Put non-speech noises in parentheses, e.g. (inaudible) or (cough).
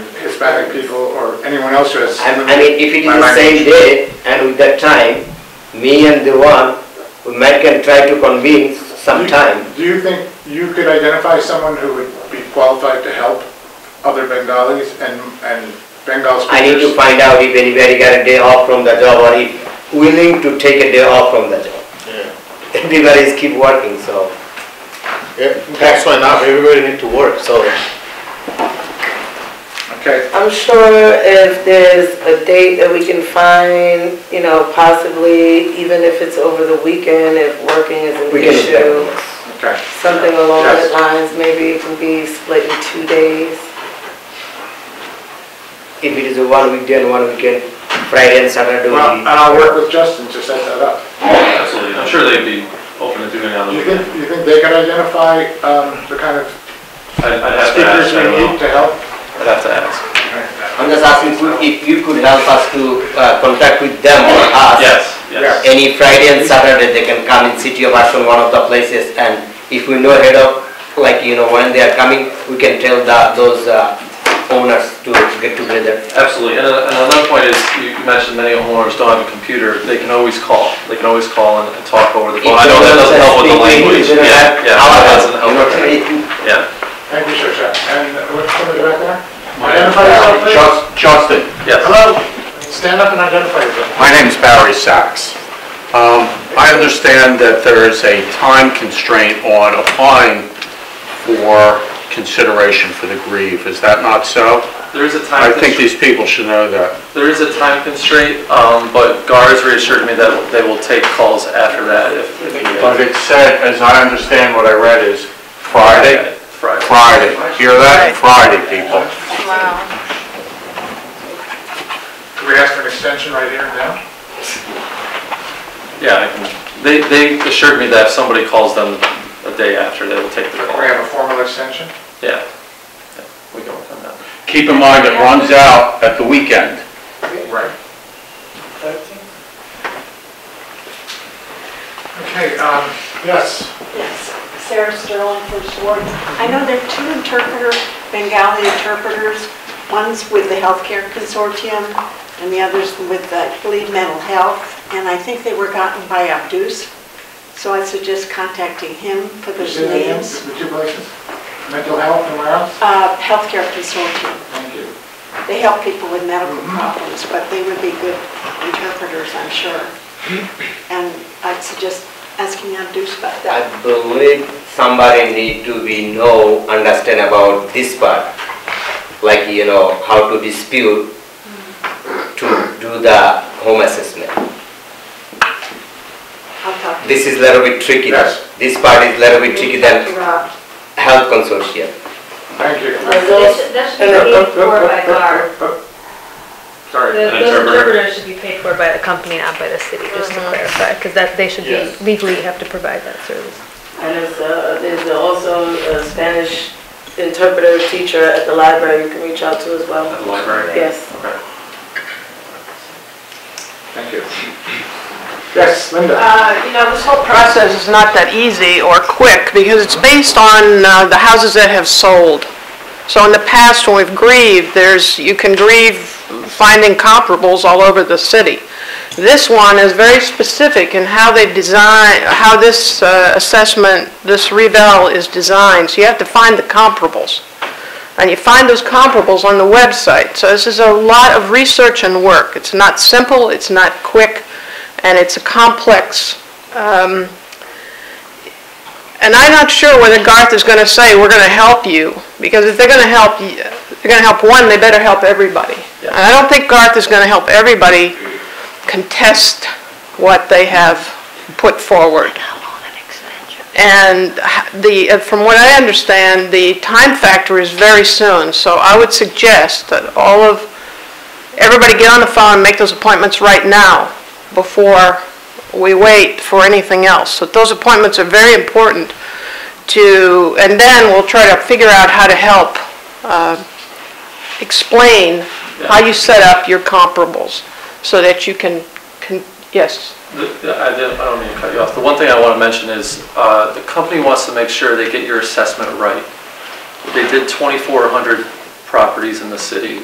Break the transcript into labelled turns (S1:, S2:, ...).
S1: Hispanic people or anyone else who has
S2: I I mean, if it is
S1: my
S2: the same
S1: language.
S2: day and with that time, me and the one, we might can try to convene sometime.
S1: Do you think you could identify someone who would be qualified to help other Bengalis and, and Bengal speakers?
S2: I need to find out if anybody got a day off from the job or if willing to take a day off from the job.
S3: Yeah.
S2: (laughs) Everybody is keep working, so.
S3: Yeah, that's why now everybody need to work, so.
S1: Okay,
S4: I'm sure if there's a date that we can find, you know, possibly, even if it's over the weekend, if working is an
S2: we can
S4: issue,
S1: okay.
S4: something along
S1: Yes.
S4: those lines, maybe it can be split in two days.
S2: If it is a one weekday and one weekend, Friday and Saturday, we,
S1: Well, and I'll work with Justin to set that up.
S5: Absolutely, I'm sure they'd be open to doing it on
S1: Do
S5: the
S1: you
S5: weekend.
S1: think, you think they could identify, um, the kind of
S5: I'd I'd have to
S1: speakers
S5: ask, I
S1: we
S5: will.
S1: need to help?
S5: I'd have to ask.
S2: I'm just asking you if you could help us to uh, contact with them or us.
S5: Yes, yes.
S2: Any Friday and Saturday, they can come in City of Ashland, one of the places, and if we know ahead of, like, you know, when they are coming, we can tell the, those uh, owners to get together.
S5: Absolutely, and uh, and another point is, you you mentioned many homeowners don't have a computer, they can always call, they can always call and and talk over the phone. I know that doesn't help with the language, yeah, yeah, that doesn't help, yeah,
S1: Thank you, Shosha. And what's somebody back there? Identify yourself, please.
S6: Johnston,
S5: yes.
S1: Hello, stand up and identify yourself.
S6: my name's Barry Sachs. Um, I understand that there is a time constraint on applying for consideration for the grieve. Is that not so?
S5: There is a time
S6: I think
S5: constraint,
S6: these people should know that.
S5: there is a time constraint, um, but GAR has reassured me that they will take calls after that if, if
S6: But
S5: needed.
S6: it said, as I understand what I read, is Friday,
S5: Friday.
S6: Friday. Hear that? Friday, people.
S1: Could we ask for an extension right here and now?
S5: Yeah, I can- they, they assured me that if somebody calls them a day after, they will take the
S1: We
S5: call.
S1: have a formal extension?
S5: Yeah. Yeah, We go with that.
S6: Keep in mind, it runs out at the weekend.
S1: Right. Okay, um, yes.
S7: Yes, Sarah Sterling, First Ward. I know there are two interpreters, Bengali interpreters. One's with the Healthcare Consortium, and the other's with the Lead Mental Health, and I think they were gotten by Abdus. So I suggest contacting him for
S1: You
S7: those
S1: see that again?
S7: names.
S1: The two places? Mental health and where else?
S7: Uh, Healthcare Consortium,
S1: Thank you.
S7: they help people with medical problems, but they would be good interpreters, I'm sure. And I'd suggest asking Abdus about that.
S2: I believe somebody need to be know, understand about this part, like, you know, how to dispute to do the home assessment.
S7: I'll talk to
S2: This is little bit tricky.
S1: Yes.
S2: This part is little bit tricky than
S7: Rob.
S2: health consortium.
S1: Thank you.
S4: Are
S8: That
S4: those-
S8: should be paid for by GAR.
S1: Sorry.
S8: The-
S5: An
S8: Those
S5: interpreter.
S8: interpreters should be paid for by the company, not by the city, just to clarify, because that, they should be,
S6: Yes.
S8: legally have to provide that service.
S4: And there's, uh, there's also a Spanish interpreter teacher at the library you can reach out to as well.
S5: At the library?
S4: Yes.
S5: Okay.
S1: Thank you. Yes, Linda.
S9: Uh, You know, this whole process is not that easy or quick because it's based on uh, the houses that have sold. So in the past, when we've grieved, there's, you can grieve finding comparables all over the city. This one is very specific in how they design, how this uh, assessment, this revale is designed. So you have to find the comparables. And you find those comparables on the website. So this is a lot of research and work. It's not simple, it's not quick, and it's a complex, um, and I'm not sure whether Garth is going to say, we're going to help you, because if they're going to help, y- they're going to help one, they better help everybody. And I don't think Garth is going to help everybody contest what they have put forward. And the, uh, from what I understand, the time factor is very soon, so I would suggest that all of, everybody get on the phone and make those appointments right now before we wait for anything else. So those appointments are very important to, and then we'll try to figure out how to help uh, explain how you set up your comparables so that you can, can- yes.
S5: The- the- I didn't- I don't mean to cut you off. The one thing I want to mention is, uh, the company wants to make sure they get your assessment right. They did 2,400 properties in the city.